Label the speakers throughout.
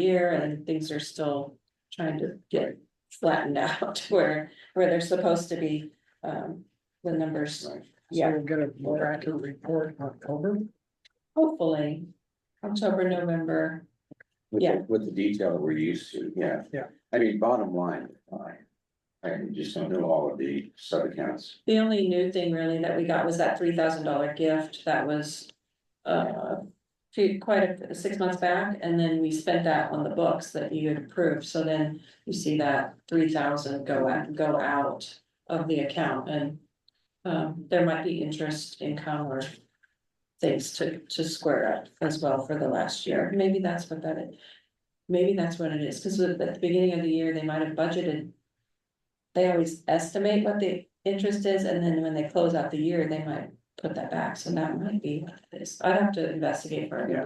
Speaker 1: year and things are still trying to get flattened out where, where they're supposed to be. Um, the numbers,
Speaker 2: So
Speaker 1: Yeah.
Speaker 2: we'll get a more accurate report in October.
Speaker 1: hopefully, October, November,
Speaker 3: With,
Speaker 1: Yeah.
Speaker 3: the- with the detail that we're used to, yeah.
Speaker 2: Yeah.
Speaker 3: I mean, bottom line, I, I just don't know all of the sub accounts.
Speaker 1: The only new thing really that we got was that three thousand dollar gift that was. Uh, few- quite a, six months back, and then we spent that on the books that you had approved, so then you see that three thousand go out, go out of the account and. Um, there might be interest income or things to, to square up as well for the last year, maybe that's what that is. Maybe that's what it is, cause at the beginning of the year, they might have budgeted. They always estimate what the interest is, and then when they close out the year, they might put that back, so that might be what it is. I'd have to investigate further,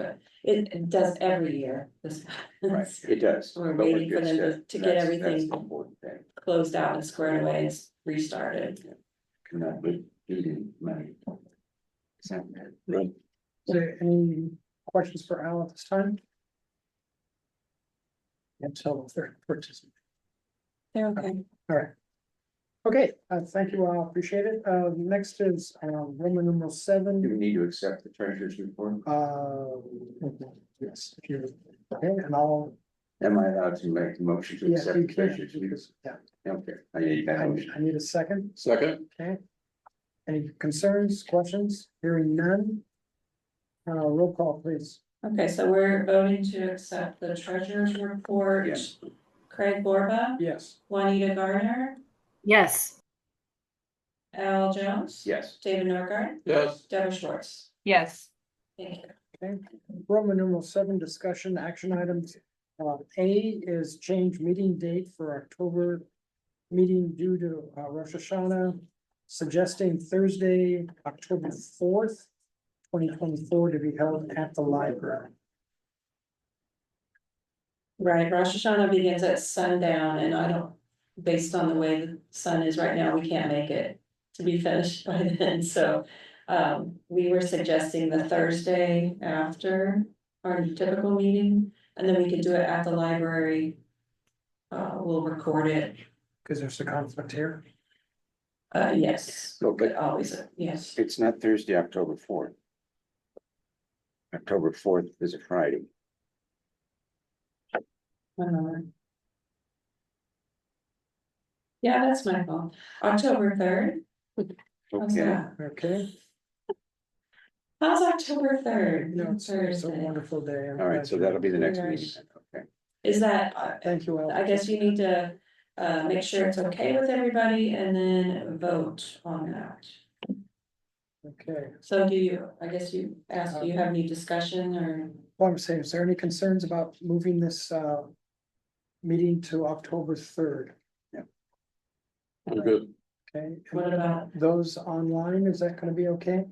Speaker 1: but it it does every year, this. happens.
Speaker 3: It does.
Speaker 1: We're
Speaker 3: but with
Speaker 1: waiting for
Speaker 3: good
Speaker 1: them to-
Speaker 3: stuff,
Speaker 1: to get
Speaker 3: that's- that's
Speaker 1: everything.
Speaker 3: the Important thing,
Speaker 1: Closed out and squared away and restarted.
Speaker 3: cannot be eating money. So,
Speaker 2: Is there any questions for Al at this time? Until the third purchase.
Speaker 1: They're okay.
Speaker 2: All right. Okay, uh, thank you all. Appreciate it. Uh, next is, uh, Roman numeral
Speaker 3: Do
Speaker 2: seven.
Speaker 3: we need to accept the treasurer's report?
Speaker 2: Uh, yes, if you, okay, and I'll,
Speaker 3: Am I allowed to make the motion to
Speaker 2: yes,
Speaker 3: accept
Speaker 2: you
Speaker 3: the
Speaker 2: can,
Speaker 3: treasurer's
Speaker 2: you can,
Speaker 3: report?
Speaker 2: yeah,
Speaker 3: Okay, I need
Speaker 2: I,
Speaker 3: that motion.
Speaker 2: I need a second.
Speaker 3: Second.
Speaker 2: Okay. Any concerns, questions? Hearing none? Uh, roll call, please.
Speaker 1: Okay, so we're voting to accept the treasurer's report.
Speaker 3: Yes.
Speaker 1: Craig Borba,
Speaker 2: Yes.
Speaker 1: Juanita Garner,
Speaker 4: Yes.
Speaker 1: Al Jones.
Speaker 3: Yes.
Speaker 1: David Norgard,
Speaker 3: Yes.
Speaker 1: Deborah Schwartz.
Speaker 4: Yes.
Speaker 1: Thank you.
Speaker 2: Okay, Roman numeral seven, discussion action items. Uh, A is change meeting date for October meeting due to uh, Rosh Hashanah, suggesting Thursday, October fourth, twenty twenty-four to be held at the library.
Speaker 1: Right, Rosh Hashanah begins at sundown and I don't, based on the way the sun is right now, we can't make it to be finished by then, so. Um, we were suggesting the Thursday after our typical meeting, and then we could do it at the library. Uh, we'll record it,
Speaker 2: Because there's a conflict here.
Speaker 1: uh, yes,
Speaker 3: So, but
Speaker 1: always, uh, yes,
Speaker 3: It's not Thursday, October fourth. October fourth is a Friday.
Speaker 1: one moment. Yeah, that's my fault, October third, how's
Speaker 3: Okay,
Speaker 1: that?
Speaker 2: Okay,
Speaker 1: How's October third?
Speaker 2: no, it's it's a wonderful day.
Speaker 3: all right, so that'll be the next meeting, then.
Speaker 1: Is that, uh,
Speaker 2: Thank you. Al.
Speaker 1: I guess you need to uh make sure it's okay with everybody and then vote on that.
Speaker 2: Okay,
Speaker 1: So do you, I guess you asked, do you have any discussion or?
Speaker 2: well, I'm saying, is there any concerns about moving this uh meeting to October third?
Speaker 3: okay. Good.
Speaker 2: Okay.
Speaker 1: What about-
Speaker 2: Those online, is that gonna be okay?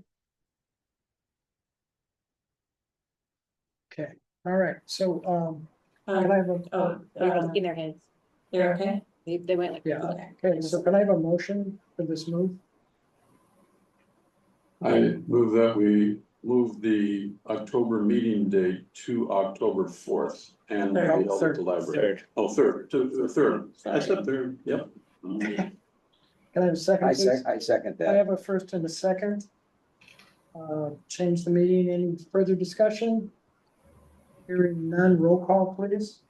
Speaker 2: Okay, all right, so, um, can I
Speaker 1: Um,
Speaker 2: have a,
Speaker 1: oh, uh,
Speaker 4: In their hands.
Speaker 1: you're okay?
Speaker 4: They, they went like.
Speaker 2: yeah,
Speaker 1: Okay.
Speaker 2: okay, so can I have a motion for this move?
Speaker 5: I move that we move the October meeting date to October fourth and be held at the library. Oh, third, to the third, I said third, yep.
Speaker 2: Can I have a second,
Speaker 3: I
Speaker 2: please?
Speaker 3: sec- I second
Speaker 2: I
Speaker 3: that.
Speaker 2: have a first and a second. Uh, change the meeting, any further discussion? Hearing none, roll call, please.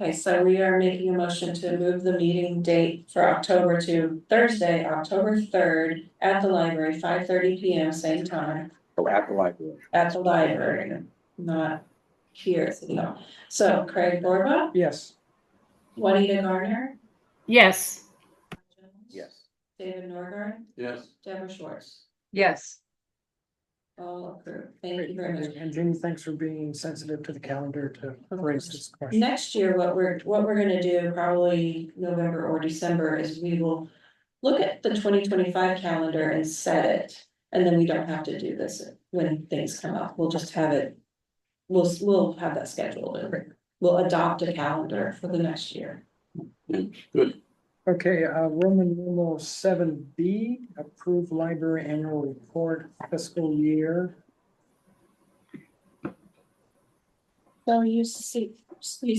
Speaker 1: Okay, so we are making a motion to move the meeting date for October to Thursday, October third at the library, five thirty P M, same time,
Speaker 3: Oh, at the library.
Speaker 1: at the library, not here, no. So Craig Borba,
Speaker 2: Yes,
Speaker 1: Juanita Garner,
Speaker 4: Yes.
Speaker 1: Jones?
Speaker 3: Yes.
Speaker 1: David Norgren,
Speaker 5: Yes,
Speaker 1: Deborah Schwartz,
Speaker 4: Yes.
Speaker 1: all approved, thank you very much.
Speaker 2: and Jenny, thanks for being sensitive to the calendar to raise this question.
Speaker 1: Next year, what we're, what we're gonna do probably November or December is we will. Look at the twenty twenty-five calendar and set it, and then we don't have to do this when things come up, we'll just have it. We'll, we'll have that scheduled, and we'll adopt a calendar for the next year.
Speaker 5: good,
Speaker 2: Okay, uh, Roman numeral seven B, approve library annual report fiscal year.
Speaker 1: So you see, you